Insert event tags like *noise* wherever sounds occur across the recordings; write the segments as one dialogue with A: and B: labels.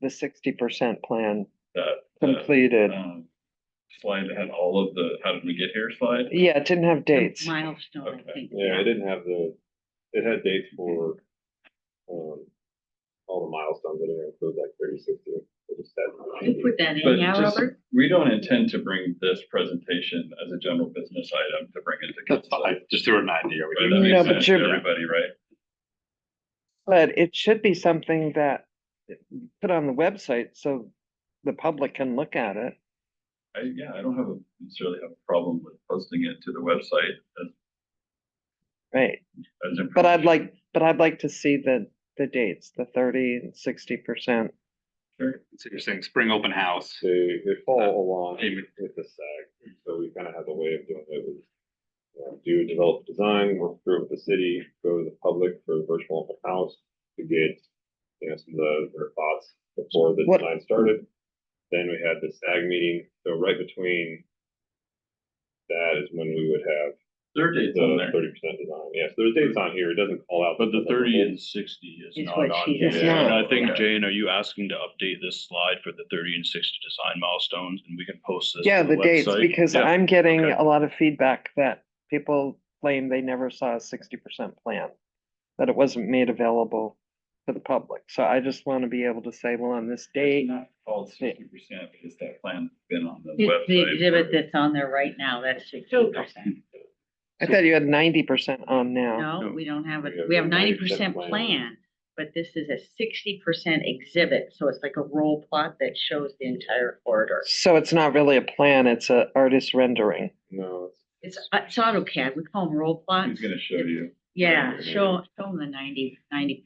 A: the sixty percent plan
B: That- that,
A: completed.
B: um, Slide that had all of the, how did we get here slide?
A: Yeah, it didn't have dates.
C: Milestone, I
B: Okay.
C: think.
D: Yeah, it didn't have the, it had dates for, um, all the milestones in there, include like thirty, sixty, it just said.
C: You put that in,
B: But
C: yeah,
B: just-
C: Robert?
B: We don't intend to bring this presentation as a general business item to bring into
E: That's
B: council.
E: fine, just throw it in ninety, are we
B: Right,
E: good?
B: that
A: No,
B: makes
A: but
B: sense to
A: you're-
B: everybody, right?
A: But it should be something that put on the website so the public can look at it.
B: I, yeah, I don't have a, necessarily have a problem with posting it to the website as,
A: Right,
B: as.
A: but I'd
B: information.
A: like, but I'd like to see the, the dates, the thirty and sixty percent.
B: Sure.
E: So you're saying spring open house,
D: They, they
F: Uh,
D: follow along
E: Amen.
D: with the SAG, so we kind of have a way of doing it with. you know, Do a develop design, work through with the city, go to the public for a virtual open house to get, you know, some of the- their thoughts before the
A: What-
D: design started. Then we had the SAG meeting, so right between that is when we would have
B: Their date's on
D: the
B: there,
D: thirty percent design, yes, there's dates on here, it doesn't call out.
F: But the
D: specific
F: thirty
D: dates.
F: and sixty is
C: Is
F: not
C: what
F: on
C: she
F: here.
A: said.
F: And
A: Yeah.
F: I think,
B: Okay.
F: Jane, are you asking to update this slide for the thirty and sixty design milestones and we can post this?
A: Yeah,
F: to
A: the dates,
F: website?
A: because
F: Yeah.
A: I'm getting
F: okay.
A: a lot of feedback that people claim they never saw a sixty percent plan. That it wasn't made available to the public. So I just want to be able to say, well, on this date,
B: It's not called sixty percent because that plan's been on the
C: It's the
B: website.
C: exhibit
B: for-
C: that's on there right now, that's sixty percent.
A: I thought you had ninety percent on now.
C: No, we don't have it,
D: We have
C: we have
D: the
C: ninety percent
D: 90%
C: plan, but this is a sixty percent exhibit, so it's like a roll plot that shows the entire corridor.
A: So it's not really a plan, it's a artist rendering.
D: No, it's
C: It's, uh, it's AutoCAD, we call them roll
B: He's
C: plots.
B: gonna show you.
C: Yeah,
D: Yeah.
C: show, show them the 90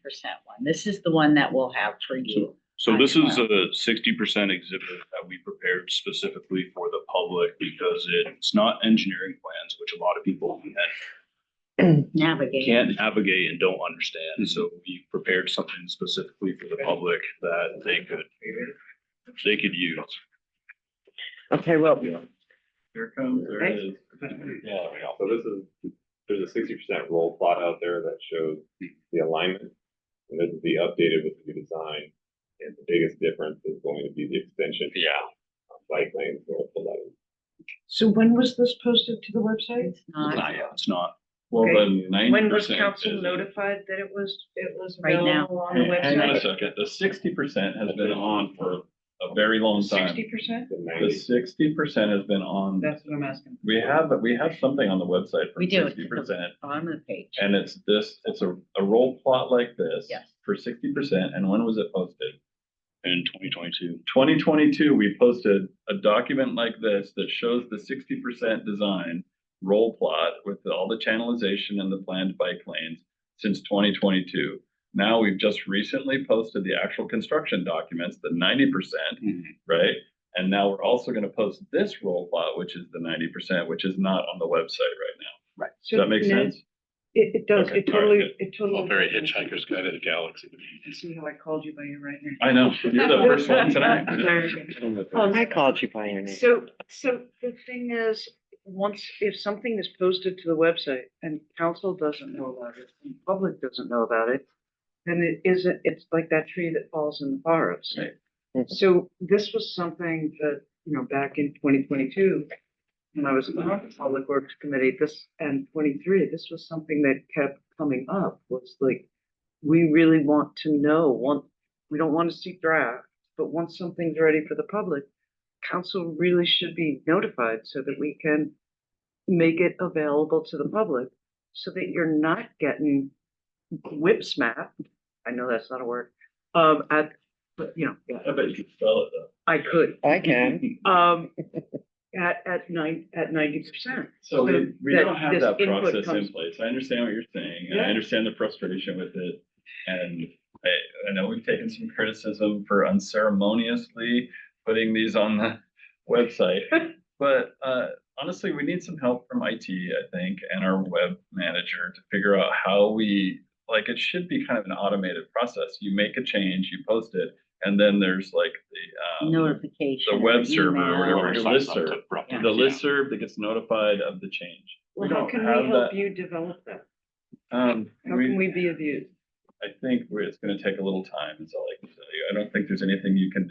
C: percent one, this is the one that we'll have for you.
F: So this is a sixty percent exhibit that we prepared specifically for the public because it's not engineering plans, which a lot of people
C: Navigate,
F: can't navigate and don't understand. So we prepared something specifically for the public that they could, they could use.
A: Okay, well,
B: Here comes, there it is.
F: Yeah.
D: So this is, there's a sixty percent roll plot out there that shows the alignment. And this is the updated with the new design. And the biggest difference is going to be the extension.
F: Yeah.
D: of Bike lanes north of eleven.
G: So when was this posted to the website?
C: it's not
F: Not yet, it's not.
B: Well,
G: Okay.
B: then ninety percent.
G: When was council notified that it was, it was
C: Right now.
G: available on the
B: Hang on a
G: website?
B: second, the sixty percent has been on for a very long time.
G: Sixty percent?
D: The
B: The
D: 90
B: sixty percent has been on,
G: That's what I'm asking.
B: we have, we have something on the website for
C: We do.
B: sixty percent.
C: bottom of the page.
B: And it's this, it's a, a roll plot like this.
C: Yes.
B: For sixty percent, and when was it posted?
F: In twenty twenty-two.
B: Twenty twenty-two, we posted a document like this that shows the sixty percent design roll plot with all the channelization and the planned bike lanes since twenty twenty-two. Now, we've just recently posted the actual construction documents, the ninety percent,
F: Mm-hmm.
B: right? And now we're also gonna post this roll plot, which is the ninety percent, which is not on the website right now. Does that make sense?
G: It, it does,
B: Okay,
G: it
B: all right,
G: totally,
B: good.
G: it totally.
E: Well, very Hitchhiker's Guide to the Galaxy.
G: You See how I called you by your right name?
B: I know, you're the first one tonight. *laughs*
G: Very
B: Well,
A: I called you by your name.
G: So, so the thing is, once, if something is posted to the website and council doesn't know about it, and public doesn't know about it, then it isn't, it's like that tree that falls in the forest.
B: Right.
A: Mhm.
G: So this was something that, you know, back in twenty twenty-two, when I was on the Public Works Committee, this, and twenty-three, this was something that kept coming up, was like, we really want to know, want, we don't want to see draft, but once something's ready for the public, council really should be notified so that we can make it available to the public so that you're not getting whipsmacked. I know that's not a word, um, at, but you know, yeah,
B: I bet you can spell it though.
G: I could,
A: I can.
G: um, at, at nine, at ninety percent.
B: *laughs* So we, we
G: that
B: don't have
G: this
B: that
G: input
B: process in
G: comes-
B: place. I understand what you're saying. and I
G: Yeah.
B: understand the frustration with it. And I, I know we've taken some criticism for unceremoniously putting these on the *laughs* website.
G: *laughs*
B: But, uh, honestly, we need some help from IT, I think, and our web manager to figure out how we, like, it should be kind of an automated process. You make a change, you post it, and then there's like the, um,
C: Notification.
B: the
C: or
B: web server or
C: email.
B: whatever. the
C: Yeah.
B: listserv that gets notified of the change. We
G: Well, how
B: don't
G: can
B: have
G: we help
B: that.
G: you develop that?
B: Um,
G: How can
B: we,
G: we be of use?
B: I think we're- it's gonna take a little time, is all I can tell you. I don't think there's anything you can